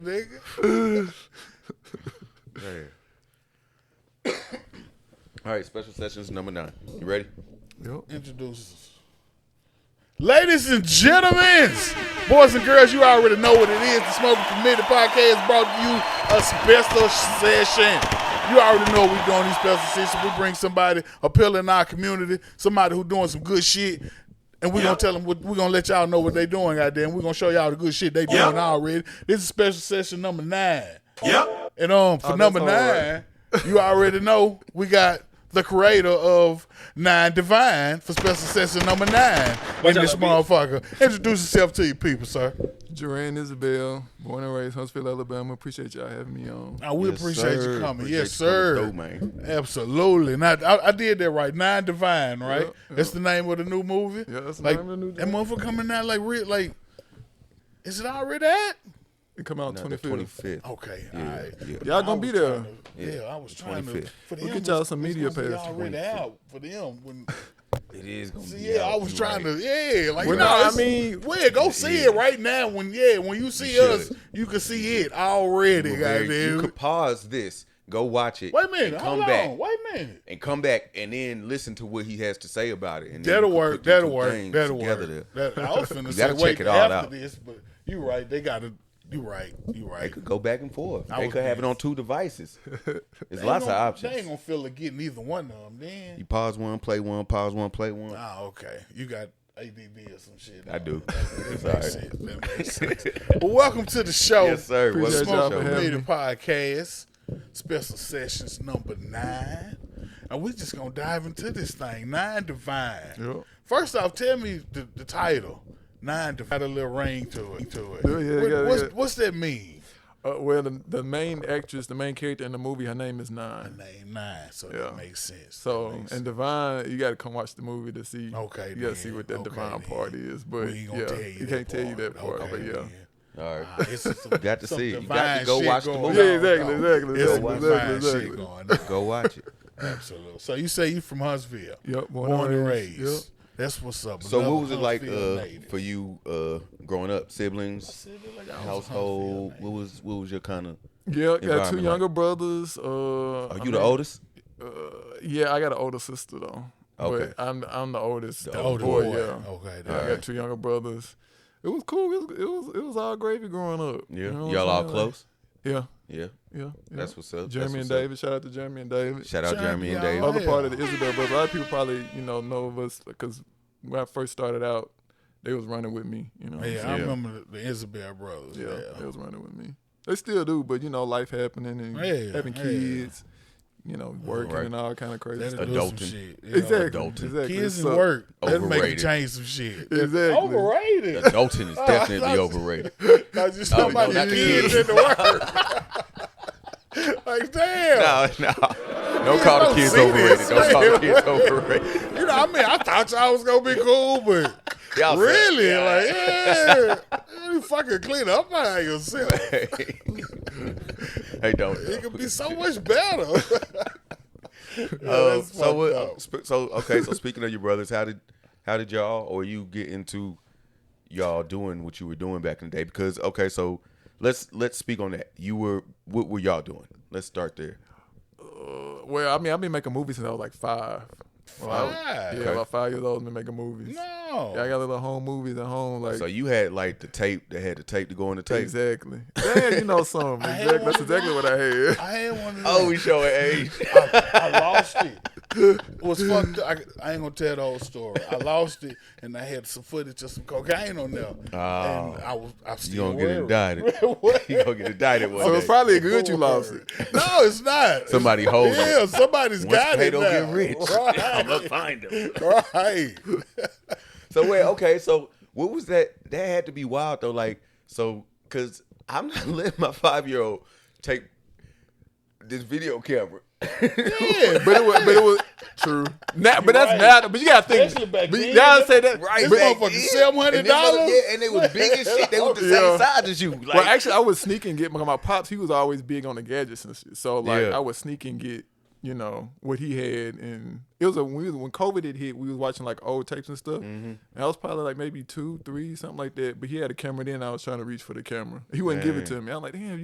nigga. Man. All right, special sessions number nine. You ready? Introduce us. Ladies and gentlemen, boys and girls, you already know what it is. The Smoking Committee podcast brought to you a special session. You already know we're doing these special sessions. We bring somebody, a pillar in our community, somebody who doing some good shit, and we're gonna tell them what we're gonna let y'all know what they doing out there, and we're gonna show y'all the good shit they doing already. This is special session number nine. Yep. And um, for number all right. nine, you already know we got the creator of Nine Divine for special session number nine in this motherfucker. Introduce yourself to your people, sir. Duran Isabel, born and raised Huntsville, Alabama. Appreciate y'all having me on. I we appreciate sir. you coming. Appreciate yes, you sir. coming through, man. Absolutely. Not. I, I did that right. Nine Divine, right? Yeah, That's the name of the new movie. Yeah, that's the like name of the new that motherfucker coming out like real like. Is it already at? It come out No, the 25th. 25th. Okay. Yeah, all right. yeah. Y'all gonna Oh, be there. Yeah, I was trying to. 25th. For We'll them, get y'all it's- some it's media supposed to be pass Already 25th. out for them when It is gonna be. Yeah, I was trying to. Yeah, like Well, no, no, I I mean, mean- well, go see it Yeah. right now. When yeah, when you see You should. us, you can see it already, you goddamn. could pause this, go watch it. Wait a minute, and hold come on. back Wait a minute. and come back and then listen to what he has to say about it. And then That'll you can work. put your That'll two work. things That'll together work. to- That, I was finna You say gotta wait check it all after out. this, but you right. They gotta. You right. You They right. could go back and forth. I they was could have it pissed. on two devices. They There's lots of ain't gonna- options. They ain't gonna feel like getting either one of them. You Then pause one, play one, pause one, play one. ah, okay. You got ADD or some shit. I do. It's all That right. makes sense. That makes sense. well, welcome to the show. Yes, sir. What's Appreciate the y'all show? for Smoke having man? Media me. Podcast, special sessions number nine. And we're just going to dive into this thing. Nine Divine. Yep. First off, tell me the, the title. Nine Divine. Got a little ring to it. To it. Yeah, yeah, What- yeah, what's, yeah. what's that mean? Uh, well, the, the main actress, the main character in the movie, her name is Nine. Name nine. So Yeah. that makes sense. That So, makes and Divine, you gotta come watch the movie to see. Okay, You gotta then. see what that Okay, Divine then. part is, We but ain't yeah, gonna tell you you that can't tell you part. that part, Okay, but yeah. then. All right. Ah, it's some- Got to some see it. You got to divine go shit watch the going movie. Yeah, exactly, on, exactly, dog. exactly, It's some exactly, divine shit exactly. going on. Go watch it. Absolutely. So you say you from Huntsville? Yep, Born, born and and raised. raised, yep. That's what's up. So Another what was it like Huntsville uh, native. for you uh, growing up? Siblings, Said it like I was a household. Huntsville What was what was your kind of? Yeah, got two Environment, younger brothers. Uh, Are I Oh, you mean, the oldest? Uh, yeah, I got an older sister though. Okay. But I'm I'm the oldest. The The native. older Older boy, boy. Yeah. Okay. I there. got two younger brothers. It was cool. It was it was, it was all gravy growing up. Yeah. You know what Y'all all I'm saying? close. Yeah, yeah. Yeah. yeah. That's what's up. Jeremy That's what's and up. David. Shout out to Jeremy and David. Shout out Jeremy, Jeremy and y'all. Dave. Oh, Other yeah. part of the Isabel brothers. A lot of people probably you know know of us because when I first started out, they was running with me. You know. what I'm Yeah, I saying? remember the, the Isabel brothers. yeah, They Yeah. was running with me. They still do, but you know, life happening and Yeah, having yeah. kids. You know, working Right. and all kind of crazy That'll stuff. do some Adulting. shit. you know. Exactly. adulting. Exactly. Kids So- and work. That'll make you Overrated. change some shit. Exactly. Overrated. Adulting is I definitely thought- overrated. Cause you Oh, no, somebody not the kids kids. in the work. like damn. No, no. Don't call the don't kids see overrated. this, Don't call the man. kids overrated. You know, I mean, I thought y'all was gonna be cool, but Y'all suck. really, like, yeah, you fucking clean up by yourself. hey, don't. It could be so much better. Yeah, Uh, that's so what? fucked up. sp- So okay. So speaking of your brothers, how did how did y'all or you get into y'all doing what you were doing back in the day? Because okay, so let's let's speak on that. You were what were y'all doing? Let's start there. uh, Well, I mean, I've been making movies since I was like five. When I was- Five? Yeah, about five years old, I've been making movies. No. Yeah, I got little home movies at home, like So you had like the tape that had the tape to go in the tape. exactly. Damn, you know some. had Exactly. one That's of exactly what I had. I had one of them. Oh, we showing age. I lost it. It was fucked up. I, I ain't gonna tell the whole story. I lost it, and I had some footage of some cocaine on there, and I was I was Oh. You still gonna get worried. indicted. You gonna get indicted one So day. it's probably good you lost it. No, it's not. Somebody hold Yeah, it. somebody's Once got it Plato now. get rich, Right. I'ma find him. right. So wait, okay. So what was that? That had to be wild though. Like so, cause I'm not letting my five year old take this video camera. Yeah, But it was, but it was true. Now, but that's right. now. But you gotta think. Especially back But you then. gotta say that. Right, But, back motherfucker then. $700? And them mother- Yeah, and they was big as shit. They was the same Yeah. size as you. Like, well, actually, I would sneak and get my, my pops. He was always big on the gadgets and shit. So like, Yeah. I would sneak and get you know what he had, and it was a when, we was- when COVID had hit, we was watching like old tapes and Mm-hmm. stuff. And I was probably like maybe two, three, something like that. But he had a camera then. I was trying to reach for the camera. He wouldn't give it to me. I'm like, damn,